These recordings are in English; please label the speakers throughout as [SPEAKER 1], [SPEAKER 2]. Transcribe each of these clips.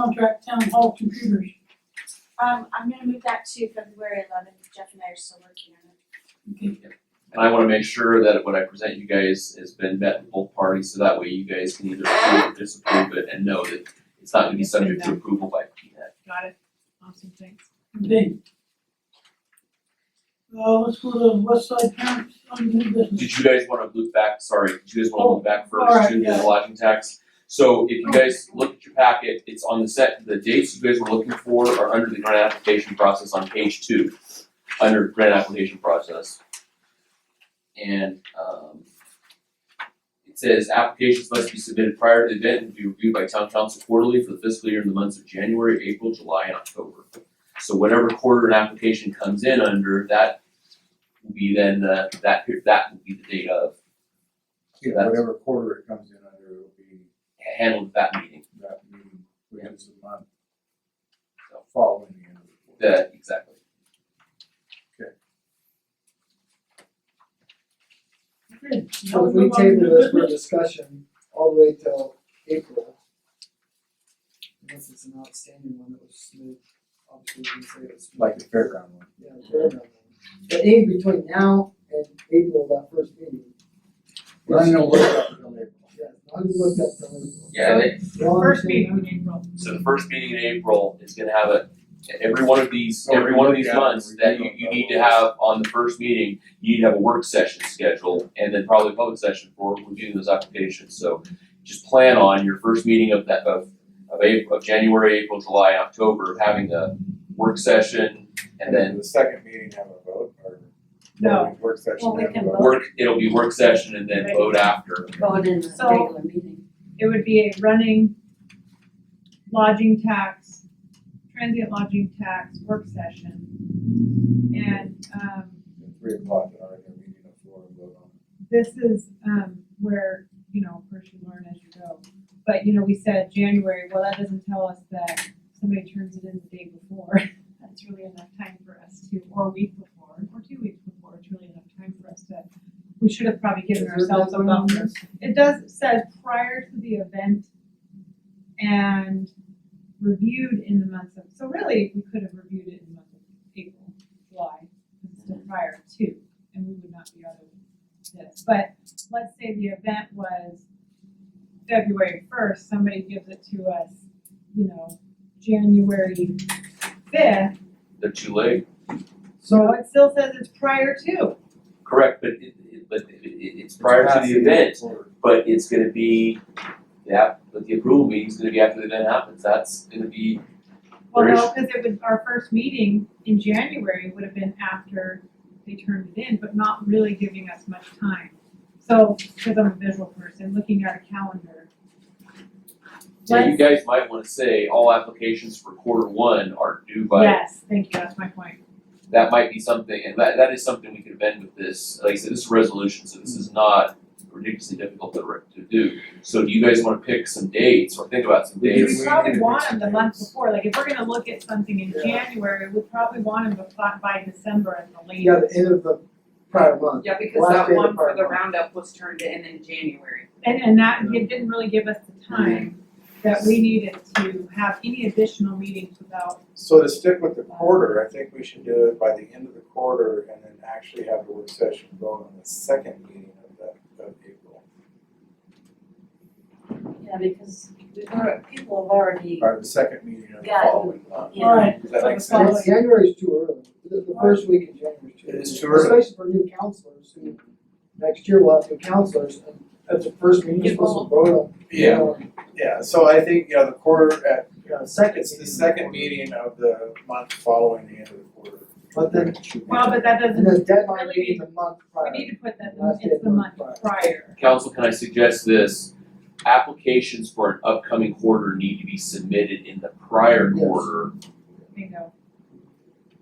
[SPEAKER 1] contract town hall computers.
[SPEAKER 2] Um, I'm gonna move that to February eleventh, Jeff and I are still working on it.
[SPEAKER 1] Okay,
[SPEAKER 3] And I wanna make sure that what I present you guys has been met with both parties, so that way you guys can either approve or disapprove it and know that it's not gonna be subject to approval by E PNET.
[SPEAKER 4] Got it. Awesome, thanks.
[SPEAKER 1] okay. Uh, let's go to West Side Parents on new business.
[SPEAKER 3] Did you guys wanna loop back, sorry, did you guys wanna loop back
[SPEAKER 1] alright,
[SPEAKER 3] first to
[SPEAKER 1] yeah.
[SPEAKER 3] the lodging tax? So if you guys look at your packet, it's on the set, the dates you guys were looking for are under the grant application process on page two, under grant application process. And um it says applications must be submitted prior to the event and be reviewed by town council quarterly for the fiscal year in the months of January, April, July, and October. So whatever quarter an application comes in under, that will be then uh that that will be the date of
[SPEAKER 5] Yeah,
[SPEAKER 3] That's-
[SPEAKER 5] whatever quarter it comes in under, it'll be
[SPEAKER 3] handled at that meeting.
[SPEAKER 5] that meeting, which is the month
[SPEAKER 3] So
[SPEAKER 5] following the end of the quarter.
[SPEAKER 3] that exactly.
[SPEAKER 1] Okay, now
[SPEAKER 6] So if we
[SPEAKER 1] move on to
[SPEAKER 6] table
[SPEAKER 1] new
[SPEAKER 6] this for
[SPEAKER 1] business.
[SPEAKER 6] discussion all the way till April. Unless it's an outstanding one that was smooth, obviously we can say it was. smooth.
[SPEAKER 5] Like the fairground one.
[SPEAKER 6] Yeah, fair enough. But in between now and April, that first meeting.
[SPEAKER 5] We're not gonna look up until April.
[SPEAKER 6] Yeah, I'll just look up the April.
[SPEAKER 3] Yeah, they,
[SPEAKER 6] Y'all
[SPEAKER 4] First
[SPEAKER 6] understand
[SPEAKER 4] meeting in April.
[SPEAKER 3] so the first meeting in April is gonna have a, every one of these, every one of these months that you, you need to have on the first meeting, you need to have a work session scheduled and then probably a public session for reviewing those applications, so just plan on your first meeting of that, of, of April, of January, April, July, October, having a work session and then
[SPEAKER 5] The second meeting have a vote or?
[SPEAKER 4] No.
[SPEAKER 5] Work session.
[SPEAKER 2] Well, we
[SPEAKER 5] have a
[SPEAKER 2] can
[SPEAKER 5] vote.
[SPEAKER 3] work, it'll be work session and then vote after.
[SPEAKER 7] vote in the
[SPEAKER 4] So-
[SPEAKER 7] regular meeting.
[SPEAKER 4] It would be a running lodging tax, transient lodging tax work session. And, um,
[SPEAKER 5] At Three o'clock, in our regular meeting at four and vote on it.
[SPEAKER 4] this is, um, where, you know, of course you learn as you go. But, you know, we said January, well, that doesn't tell us that somebody turns it in the day before. That's really enough time for us to, or a week before, or two weeks before, it's really enough time for us to, we should have probably given ourselves a buffer. It does, it says prior to the event and reviewed in the month of, so really, we could have reviewed it in the month of April, July, because it's still prior to, and we would not be out of this. But let's say the event was February first, somebody gives it to us, you know, January fifth,
[SPEAKER 3] They're too late.
[SPEAKER 4] so it still says it's prior to.
[SPEAKER 3] Correct, but it, it, but it, it, it's prior to the event,
[SPEAKER 5] Quarter.
[SPEAKER 3] but it's gonna be, yeah, but the approval meeting's gonna be after the event happens, that's gonna be,
[SPEAKER 4] Well,
[SPEAKER 3] There
[SPEAKER 4] no, because it would, our first meeting in January would have been after they turned it in, but not really giving us much time. So, because I'm a visual person, looking at a calendar.
[SPEAKER 3] so you
[SPEAKER 4] Let's-
[SPEAKER 3] guys might wanna say, all applications for quarter one are due by,
[SPEAKER 4] Yes, thank you, that's my point.
[SPEAKER 3] that might be something, and that, that is something we could amend with this, like I said, this is a resolution, so this is not ridiculously difficult to, re- to do. So do you guys wanna pick some dates, or think about some
[SPEAKER 5] We
[SPEAKER 3] dates?
[SPEAKER 4] We
[SPEAKER 5] we
[SPEAKER 4] probably
[SPEAKER 5] need to
[SPEAKER 4] want
[SPEAKER 5] fix
[SPEAKER 4] them the
[SPEAKER 5] some
[SPEAKER 4] month
[SPEAKER 5] dates.
[SPEAKER 4] before, like if we're gonna look at something in
[SPEAKER 6] Yeah.
[SPEAKER 4] January, we probably want them by, by December at the latest.
[SPEAKER 6] Yeah, the end of the prior month.
[SPEAKER 8] Yeah, because
[SPEAKER 6] Last
[SPEAKER 8] that
[SPEAKER 6] day of
[SPEAKER 8] one for
[SPEAKER 6] part
[SPEAKER 8] the
[SPEAKER 6] one.
[SPEAKER 8] roundup was turned in in January.
[SPEAKER 4] And, and that, it didn't really give us the time that we needed to have any additional meetings without,
[SPEAKER 5] So to stick with the quarter, I think we should do it by the end of the quarter and then actually have the work session vote on the second meeting of that, of April.
[SPEAKER 7] Yeah, because we've already, people have already,
[SPEAKER 5] Or the second meeting of the
[SPEAKER 7] Yeah.
[SPEAKER 5] following month.
[SPEAKER 7] you
[SPEAKER 1] All
[SPEAKER 7] know,
[SPEAKER 1] right,
[SPEAKER 5] Does that make
[SPEAKER 4] Yeah.
[SPEAKER 5] sense?
[SPEAKER 6] It's January's too early, the, the first week in January is too
[SPEAKER 5] It
[SPEAKER 6] early.
[SPEAKER 5] is too early.
[SPEAKER 6] Especially for new counselors who, next year we'll have new counselors and at the first meeting, you're supposed to vote on.
[SPEAKER 5] Yeah,
[SPEAKER 6] on-
[SPEAKER 5] yeah, so I think, you know, the quarter at,
[SPEAKER 6] you know, second.
[SPEAKER 5] it's the second meeting of the month following the end of the quarter.
[SPEAKER 6] But then,
[SPEAKER 4] well, but that doesn't,
[SPEAKER 6] and the deadline
[SPEAKER 4] really
[SPEAKER 6] being the month
[SPEAKER 4] we
[SPEAKER 6] prior.
[SPEAKER 4] need to put that, in-
[SPEAKER 6] Last day
[SPEAKER 4] it's
[SPEAKER 6] of
[SPEAKER 4] the month
[SPEAKER 6] month
[SPEAKER 4] prior.
[SPEAKER 3] Council, can I suggest this? Applications for an upcoming quarter need to be submitted in the prior
[SPEAKER 6] Yes.
[SPEAKER 3] quarter
[SPEAKER 4] Bingo.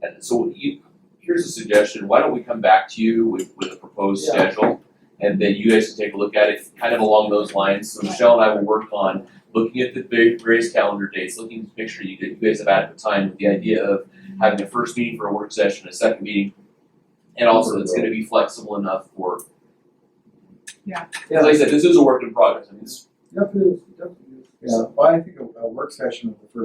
[SPEAKER 3] And so you, here's a suggestion, why don't we come back to you with, with a proposed
[SPEAKER 6] Yeah.
[SPEAKER 3] schedule? And then you guys can take a look at it, kind of along those lines, so Michelle and I will work on looking at the va- various calendar dates, looking to make sure you, that you guys have adequate time with the idea of having a first meeting for a work session, a second meeting. And also, it's gonna be flexible enough for,
[SPEAKER 6] Yeah,
[SPEAKER 3] as I said, this is a work in progress, I mean, this
[SPEAKER 6] definitely, definitely.
[SPEAKER 5] Yeah, well, I think a, a work session of the first